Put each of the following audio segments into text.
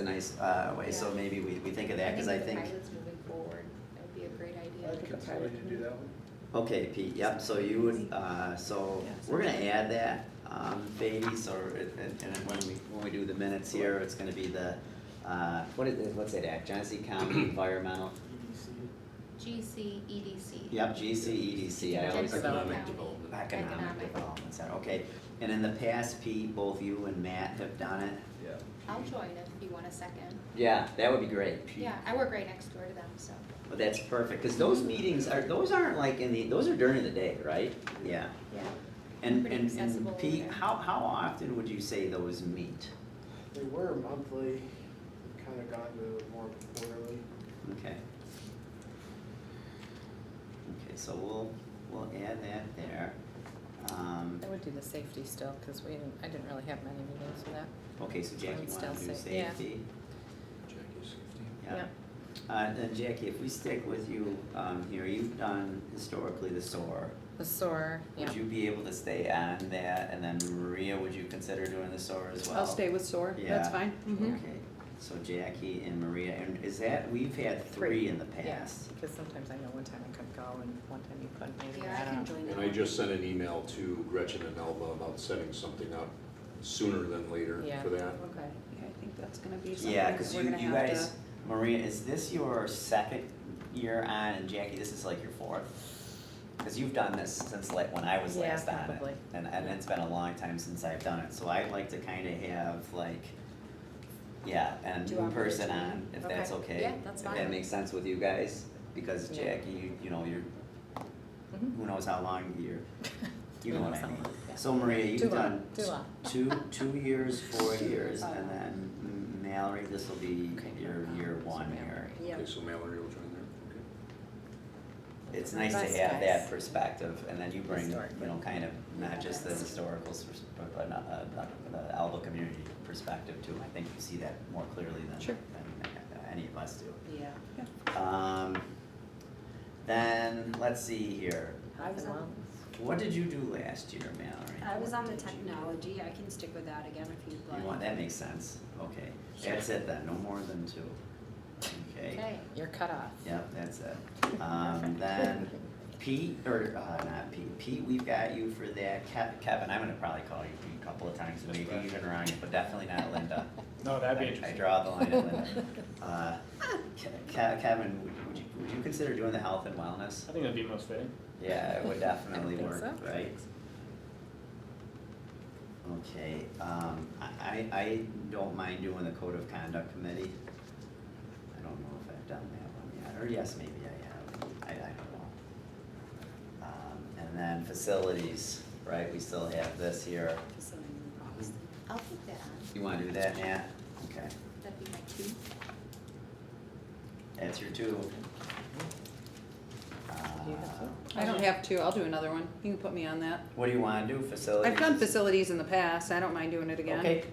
a nice uh, way, so Yeah. maybe we, we think of that, because I think, the pilot's moving forward, that would be a great idea. I can tell you to do that one. okay, Pete, yep, so you would, uh, so, we're gonna add that, um, Beatty, so, it- and, and when we, when we do the minutes here, it's gonna be the, uh, what is, it- what's that act, Johnson County Environmental, GC, EDC. yep, GCEDC, I always. Jensen Economic County development. Economic Economic. Development Center, okay, and in the past, Pete, both you and Matt have done it, Yeah. I'll join if you want a second. yeah, that would be great. Yeah, I work right next door to them, so. Well, that's perfect, because those meetings are, those aren't like in the, those are during the day, right? Yeah. Yeah. And, Pretty and, accessible and Pete, there. how, how often would you say those meet? They were monthly, kind of gone to more quarterly. Okay. Okay, so we'll, we'll add that there. Um, I would do the safety still, because we didn't, I didn't really have many meetings for that. okay, so Jackie, I'd you still wanna do say- yeah. safety? Jackie's fifteen. Yeah. Uh, and Jackie, if we stick with you, um, here, you've done historically the SOAR. The SOAR, yeah. Would you be able to stay on that, and then Maria, would you consider doing the SOAR as well? I'll stay with SOAR, that's Yeah. fine. Mm-hmm. Mhm. Okay, so Jackie and Maria, and is that, we've had three in the Mm-hmm. past. Because sometimes I know one time I could go and one time you couldn't, maybe, Yeah, I I can don't know. join them. And I just sent an email to Gretchen and Elva about setting something up sooner than later Yeah. for that. Okay. Yeah, I think that's gonna be something Yeah, that because we're you, gonna you have guys, to, Maria, is this your second year on, and Jackie, this is like your fourth? Because you've done this since like when I was Yeah, last on it. probably. And, and it's been a long time since I've done it, so I'd like to kind of have like, yeah, and Do new operates person on, time. if that's Okay. okay. Yeah, that's If that fine. makes sense with you guys, because Yeah. Jackie, you, you know, you're, Mhm. who knows how long you're, You know Who what I knows mean. how long, yeah. So Maria, Too you've long, done too long. t- two, two years, four years, and then Mallory, this will be Okay, your um, year so one year. Mallory. Yeah. Okay, so Mallory will join there, okay. It's Those are nice nice to have that guys. perspective, and then you bring, you Historic, know, but- kind of, not just the historical, pers- but, but, not- uh, not- the Alba community perspective too. I think you see that more clearly than, Sure. than uh, any of us do. Yeah. yeah. Um, then, let's see here, I was on, what did you do last year, Mallory? I was What on the did you do? technology, I can stick with that again if you'd like. You want, that makes sense, okay, that's it then, no more than two, okay? Okay, You're cut off. Yep, that's it, um, then Pete, or, uh, not Pete, Pete, we've got you for that, Kev- Kevin, I'm gonna probably call you Pete a couple of times, maybe right. even around you, but definitely not Linda. No, that'd be I- interesting. I draw the line at Linda, uh, Ke- Ke- Kevin, would- would you, would you consider doing the health and wellness? I think that'd be most fitting. Yeah, it would definitely think work, so. right? Okay, um, I, I, I don't mind doing the code of conduct committee. I don't know if I've done that one yet, or yes, maybe I have, I, I don't know. Um, and then facilities, right, we still have this here, Facility and policy. I'll put that on, you wanna do that, Nat? Okay, that'd be my two. that's your two. You have Uh, two? I don't have to, I'll do another one, you can put me on that. What do you wanna do, facilities? I've done facilities in the past, I don't mind doing it again. Okay,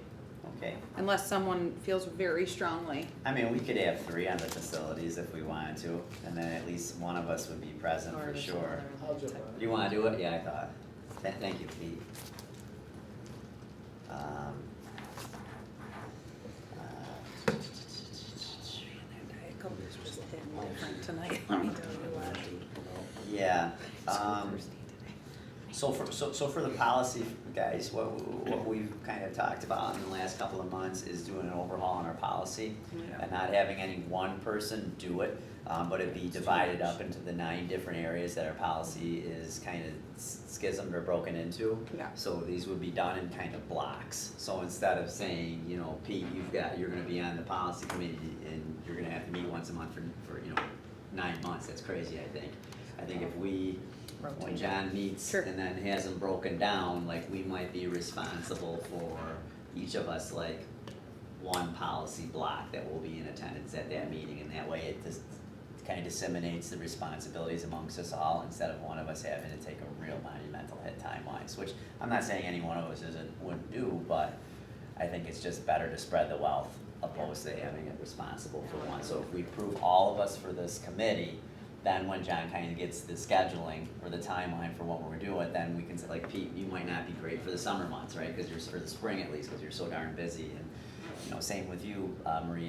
okay. Unless someone feels very strongly. I mean, we could have three on the facilities if we wanted to, and then at least one of us would be present Or for just sure. another I'll jump on it. You wanna do it? Yeah, I thought. Th- Thank you, Pete. Um, uh, Mm-hmm. Tonight, Yeah, um, so for, so, so for the policy, guys, what, what we've kind of talked about in the last couple of months is doing an overhaul on our policy and not having any one person do it, um, but it be divided up into the nine different areas that our policy is kind of schismed or broken into. Yeah. So these would be done in kind of blocks, so instead of saying, you know, Pete, you've got, you're gonna be on the policy committee and you're gonna have to meet once a month for, for, you know, nine months, that's crazy, I think. I think if we, when Rotate. John meets Sure. and then has them broken down, like, we might be responsible for each of us, like, one policy block that will be in attendance at that meeting, and that way it just kind of disseminates the responsibilities amongst us all, instead of one of us having to take a real monumental hit time-wise, which I'm not saying any one of us isn't, wouldn't do, but I think it's just better to spread the wealth opposed to having it responsible for one. So if we prove all of us for this committee, then when John kind of gets the scheduling or the timeline for what we're doing, then we can say like, Pete, you might not be great for the summer months, right? Cause you're, for the spring at least, cause you're so darn busy and you know, same with you, uh, Marie